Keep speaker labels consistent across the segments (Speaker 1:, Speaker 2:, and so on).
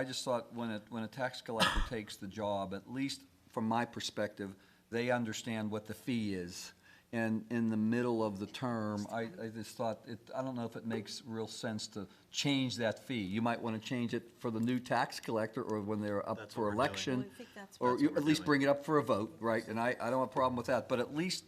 Speaker 1: I just thought when a, when a tax collector takes the job, at least from my perspective, they understand what the fee is. And in the middle of the term, I, I just thought, it, I don't know if it makes real sense to change that fee. You might want to change it for the new tax collector or when they're up
Speaker 2: That's
Speaker 1: for
Speaker 2: what we're doing.
Speaker 1: election.
Speaker 3: Well, I think that's
Speaker 1: Or
Speaker 3: what
Speaker 1: you
Speaker 2: we're
Speaker 1: at least
Speaker 2: doing.
Speaker 1: bring it up for a vote, right? And I, I don't have a problem with that, but at least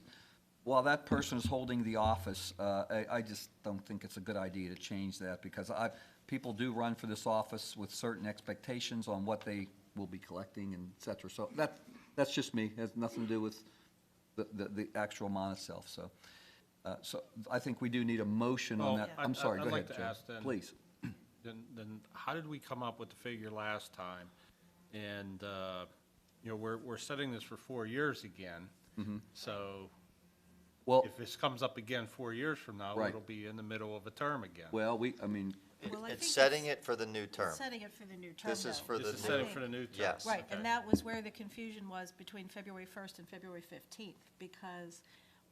Speaker 1: while that person is holding the office, uh, I, I just don't think it's a good idea to change that because I, people do run for this office with certain expectations on what they will be collecting and et cetera. So that, that's just me. It has nothing to do with the, the, the actual amount itself, so. Uh, so I think we do need a motion on
Speaker 4: Well,
Speaker 1: that.
Speaker 4: Yeah.
Speaker 1: I'm
Speaker 4: I-
Speaker 1: sorry,
Speaker 4: I'd
Speaker 1: go
Speaker 4: like
Speaker 1: ahead,
Speaker 4: to
Speaker 1: Joe.
Speaker 4: ask then-
Speaker 1: Please.
Speaker 4: Then, then how did we come up with the figure last time? And, uh, you know, we're, we're setting this for four years again.
Speaker 2: Mm-hmm.
Speaker 4: So
Speaker 1: Well,
Speaker 4: if this comes up again four years from now,
Speaker 1: Right.
Speaker 4: it'll be in the middle of a term again.
Speaker 1: well, we, I mean,
Speaker 3: Well, I
Speaker 2: It's
Speaker 3: think
Speaker 2: setting
Speaker 3: it's-
Speaker 2: it for the new term.
Speaker 3: Setting it for the new term,
Speaker 2: This is
Speaker 3: though.
Speaker 2: for the
Speaker 4: This is
Speaker 3: I
Speaker 4: setting
Speaker 2: new,
Speaker 3: think.
Speaker 4: for the new term.
Speaker 2: Yes.
Speaker 3: Right,
Speaker 4: Okay.
Speaker 3: and that was where the confusion was between February 1st and February 15th, because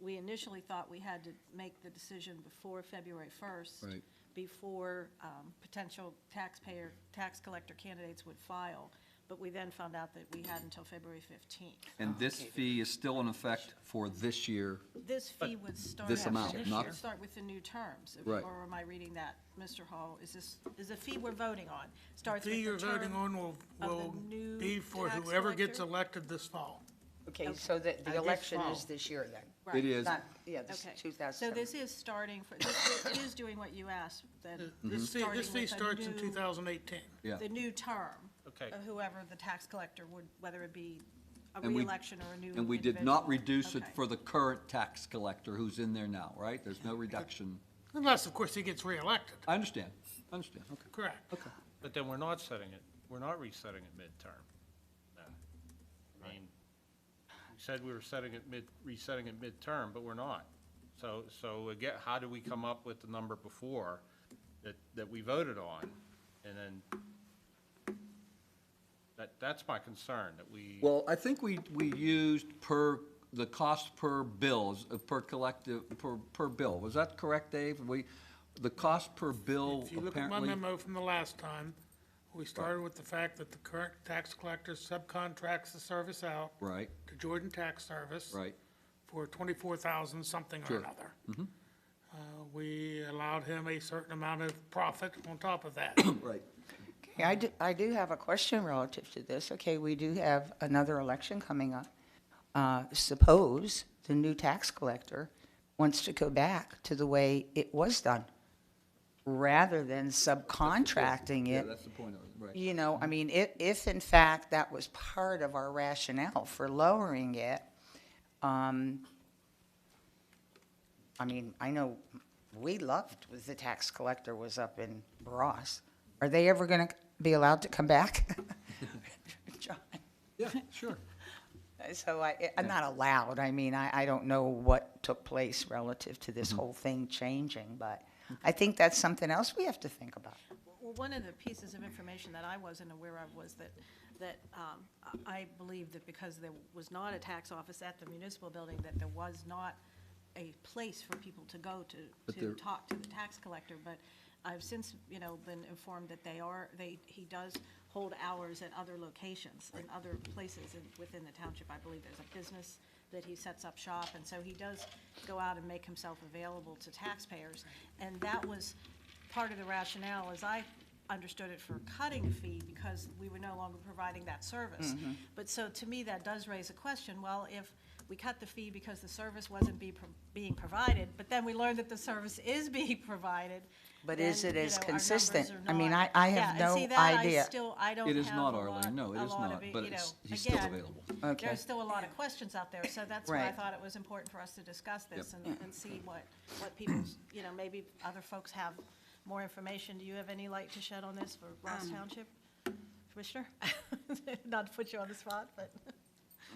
Speaker 3: we initially thought we had to make the decision before February 1st.
Speaker 1: Right.
Speaker 3: Before um, potential taxpayer, tax collector candidates would file, but we then found out that we had until February 15th.
Speaker 1: and this fee is still in effect for this year.
Speaker 3: This fee would start.
Speaker 1: This amount,
Speaker 3: would
Speaker 1: not-
Speaker 3: Start with the new terms. if-
Speaker 1: Right.
Speaker 3: Or am I reading that, Mr. Hall? Is this, is the fee we're voting on? Starts with
Speaker 5: fee you're
Speaker 3: the
Speaker 5: voting
Speaker 3: term.
Speaker 5: on will,
Speaker 3: of the
Speaker 5: will
Speaker 3: new
Speaker 5: be for
Speaker 3: tax
Speaker 5: whoever gets
Speaker 3: collector?
Speaker 5: elected this fall.
Speaker 6: Okay, so that
Speaker 5: I
Speaker 6: the
Speaker 5: guess
Speaker 6: election is
Speaker 5: so.
Speaker 6: this year then?
Speaker 3: Right.
Speaker 1: It is.
Speaker 6: Not, yeah, this
Speaker 3: Uh, Okay.
Speaker 6: is 2007.
Speaker 3: So this is starting, for this it is doing what you asked, then.
Speaker 5: Mm-hmm. This fee,
Speaker 3: starting
Speaker 5: this fee
Speaker 3: with a
Speaker 5: starts in
Speaker 3: new-
Speaker 5: 2018.
Speaker 1: Yeah.
Speaker 3: The new term.
Speaker 4: Okay.
Speaker 3: Of whoever the tax collector would, whether it be a
Speaker 1: And we-
Speaker 3: reelection or a new.
Speaker 1: And we did not
Speaker 3: individual.
Speaker 1: reduce it
Speaker 3: Okay.
Speaker 1: for the current tax collector who's in there now, right? There's no reduction.
Speaker 5: Unless, of course, he gets reelected.
Speaker 1: I understand, I understand, okay.
Speaker 5: Correct.
Speaker 4: But then we're not setting it, we're not resetting it midterm. then. I mean, we said we were setting it mid, resetting it midterm, but we're not. So, so again, how do we come up with the number before that, that we voted on? And then, that, that's my concern, that we.
Speaker 1: Well, I think we, we used per, the cost per bills, uh, per collective, per, per bill. Was that correct, Dave? We, the cost per bill
Speaker 5: If you look at my
Speaker 1: apparently,
Speaker 5: memo from the last time, we started with the fact that the current tax collector subcontracts the service out
Speaker 1: right,
Speaker 5: to Jordan Tax Service.
Speaker 1: right,
Speaker 5: For 24,000 something or
Speaker 1: Sure. Mm-hmm.
Speaker 5: another. Uh, We allowed him a certain amount of profit on top of that.
Speaker 1: right.
Speaker 6: Okay, I do, I do have a question relative to this. Okay, we do have another election coming up. Uh, Suppose the new tax collector wants to go back to the way it was done, rather than subcontracting
Speaker 1: Yeah,
Speaker 6: it.
Speaker 1: that's the point of it, right.
Speaker 6: You know, I mean, if, if in fact that was part of our rationale for lowering it, um, I mean, I know we loved was the tax collector was up in Ross. Are they ever gonna be allowed to come back? John,
Speaker 1: Yeah, sure.
Speaker 6: So I, I'm not allowed, I mean, I, I don't know what took place relative to this whole thing changing, but I think that's something else we have to think about.
Speaker 3: Well, one of the pieces of information that I wasn't aware of was that, that um, I I believe that because there was not a tax office at the municipal building, that there was not a place for people to go to,
Speaker 1: But
Speaker 3: to
Speaker 1: there-
Speaker 3: talk to the tax collector. But I've since, you know, been informed that they are, they, he does hold hours at other locations, in other places in- within the township. I believe there's a business that he sets up shop, and so he does go out and make himself available to taxpayers. And that was part of the rationale, as I understood it, for cutting the fee because we were no longer providing that service.
Speaker 6: Mm-hmm.
Speaker 3: But so to me, that does raise a question, well, if we cut the fee because the service wasn't be, pro- being provided, but then we learned that the service is being provided.
Speaker 6: But is
Speaker 3: then,
Speaker 6: it
Speaker 3: you
Speaker 6: as
Speaker 3: know, our
Speaker 6: consistent?
Speaker 3: numbers are
Speaker 6: I mean,
Speaker 3: not-
Speaker 6: I- I have
Speaker 3: Yeah, and
Speaker 6: no
Speaker 3: see, that I
Speaker 6: idea.
Speaker 3: still, I don't
Speaker 1: It is
Speaker 3: have
Speaker 1: not,
Speaker 3: a lot-
Speaker 1: Arlene, no,
Speaker 3: a
Speaker 1: it is
Speaker 3: lot of
Speaker 1: not,
Speaker 3: it,
Speaker 1: but
Speaker 3: you
Speaker 1: it's,
Speaker 3: know,
Speaker 1: he's still
Speaker 3: again,
Speaker 1: available.
Speaker 6: Okay.
Speaker 3: There's still a lot of questions out there, so that's why I
Speaker 6: Right.
Speaker 3: thought it was important for us to discuss this and,
Speaker 6: Yeah.
Speaker 3: and see what, what people's, you know, maybe other folks have more information. Do you have any light to shed on this for Ross Township? Commissioner? Not to put you on the spot, but.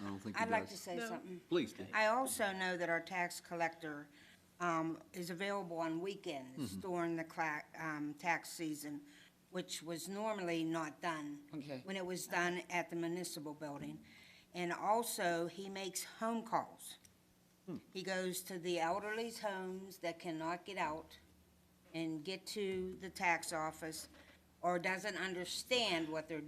Speaker 1: I don't think he
Speaker 7: I'd like to
Speaker 1: does.
Speaker 7: say something.
Speaker 1: Please, Dave.
Speaker 7: I also know that our tax collector um, is available on weekends
Speaker 1: Mm-hmm.
Speaker 7: during the cla- um, tax season, which was normally not done.
Speaker 6: Okay.
Speaker 7: When it was done at the municipal building. And also, he makes home calls.
Speaker 1: Hmm.
Speaker 7: He goes to the elderly's homes that cannot get out and get to the tax office or doesn't understand what they're